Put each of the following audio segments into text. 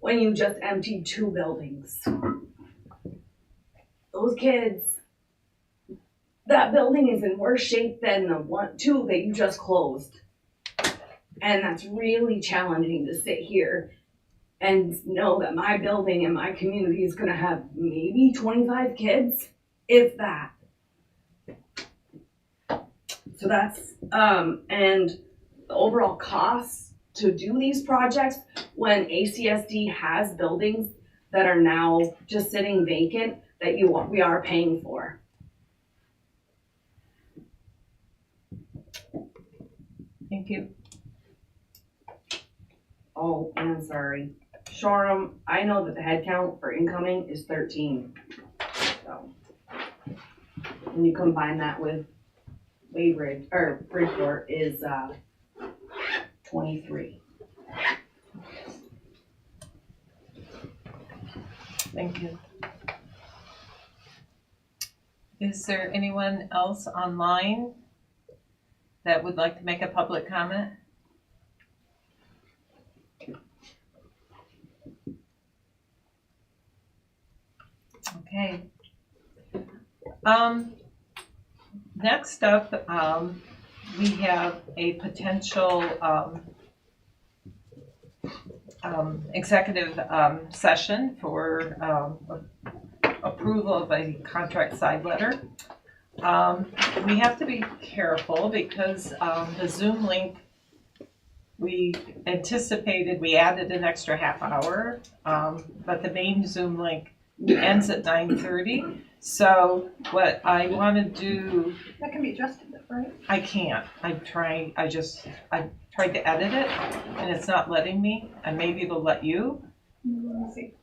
when you just emptied two buildings. Those kids, that building is in worse shape than the one, two that you just closed. And that's really challenging to sit here and know that my building and my community is gonna have maybe twenty-five kids, if that. So that's, um, and the overall costs to do these projects when ACSD has buildings that are now just sitting vacant that you, we are paying for. Thank you. Oh, and I'm sorry. Shoreham, I know that the head count for incoming is thirteen. So When you combine that with Waybridge, or Bridgeport is, uh, twenty-three. Thank you. Is there anyone else online that would like to make a public comment? Okay. Um, next up, um, we have a potential, um, um, executive, um, session for, um, approval of a contract side letter. Um, we have to be careful because, um, the Zoom link, we anticipated, we added an extra half hour, um, but the main Zoom link ends at nine thirty. So what I wanna do That can be adjusted, right? I can't. I'm trying, I just, I tried to edit it and it's not letting me. And maybe it'll let you. Let me see.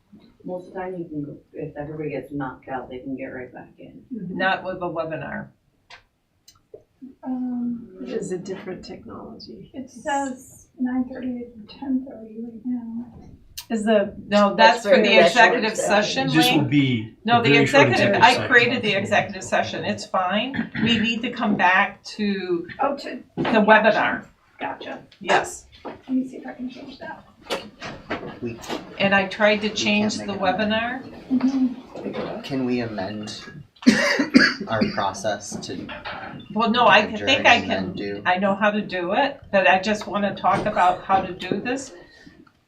Most of the time you can, go if everybody gets knocked out, they can get right back in. Not with a webinar. Um, It is a different technology. it says nine thirty to ten thirty right now. Is the No, that's That's for for the your actual executive session It just will link. be. No, a the very short executive, I session. created the executive session. It's fine. We need to come back to Oh, to, the webinar. gotcha. Yes. Let me see if I can change that. And I tried to change the webinar. Mhm. Can we amend our process to Well, no, I during think I and then can, do? I know how to do it, but I just want to talk about how to do this.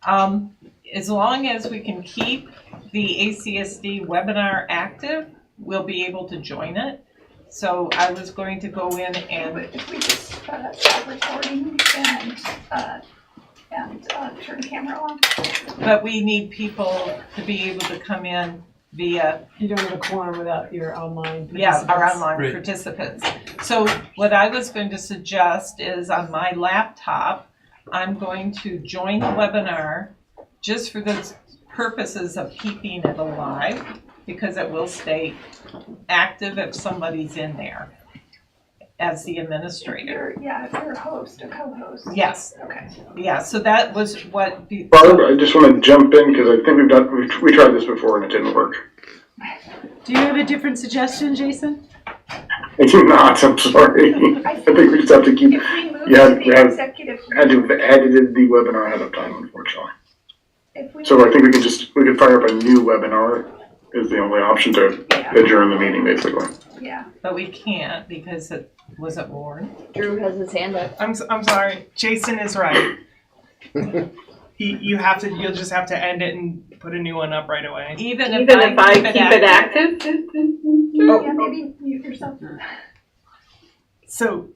Um, as long as we can keep the ACSD webinar active, we'll be able to join it. So I was going to go in and But if we just, uh, stop recording and, uh, and, uh, turn camera on. But we need people to be able to come in via, you don't have a quorum without your online. yeah, our participants. online Right. participants. So what I was going to suggest is on my laptop, I'm going to join the webinar just for the purposes of keeping it alive, because it will stay active if somebody's in there as the administrator. You're, yeah, if you're a host, a co-host. Yes, Okay. yeah, so that was what, be- Barb, I just want to jump in because I think we've done, we, we tried this before and it didn't work. Do you have a different suggestion, Jason? I do not, I'm sorry. I think we just have to keep, If we move Yeah, to yeah. the executive, had to have edited the webinar ahead of time, unfortunately. if we, So I think we can just, we could fire up a new webinar is the only option to yeah, adjourn the meeting, basically. yeah. but we can't because it wasn't warned. Drew has his hand up. I'm, s- I'm sorry. Jason is right. he, you have to. You'll just have to end it and put a new one up right away. Oh, Even if Even if I keep it active? Yeah, maybe mute yourself. So,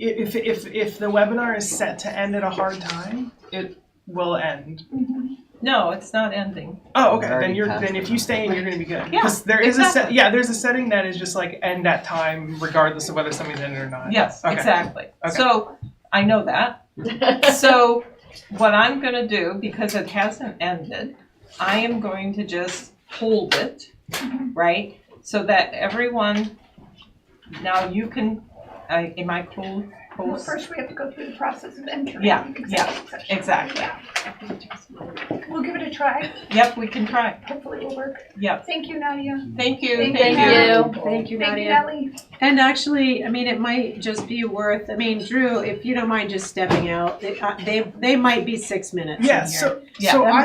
i- if if if the webinar is set to end at a hard time, it will end. Mhm. No, it's not ending. Oh, okay. Then Already you're passed then if you stay in, you're gonna be good. Yeah, 'Cause there is a set. exactly. Yeah, there's a setting that is just like end at time, regardless of whether somebody's in it or not. Yes, Okay. exactly. Okay. So I know that. So what I'm gonna do, because it hasn't ended, I am going to just hold it, Mm-hmm. right? So that everyone, now you can, I, am I cool? Well, cool? first we have to go through the process of entering. Yeah, the yeah, executive session. Exactly. We'll give it a try. Yep, we can try. Hopefully it'll work. Yep. Thank you, Nadia. Thank you, Thank thank you. you. Thank you, Thank you, Nadia. Nellie. And actually, I mean, it might just be worth, I mean, Drew, if you don't mind just stepping out, they, uh, they, they might be six minutes in Yeah. here. So Yeah, so that I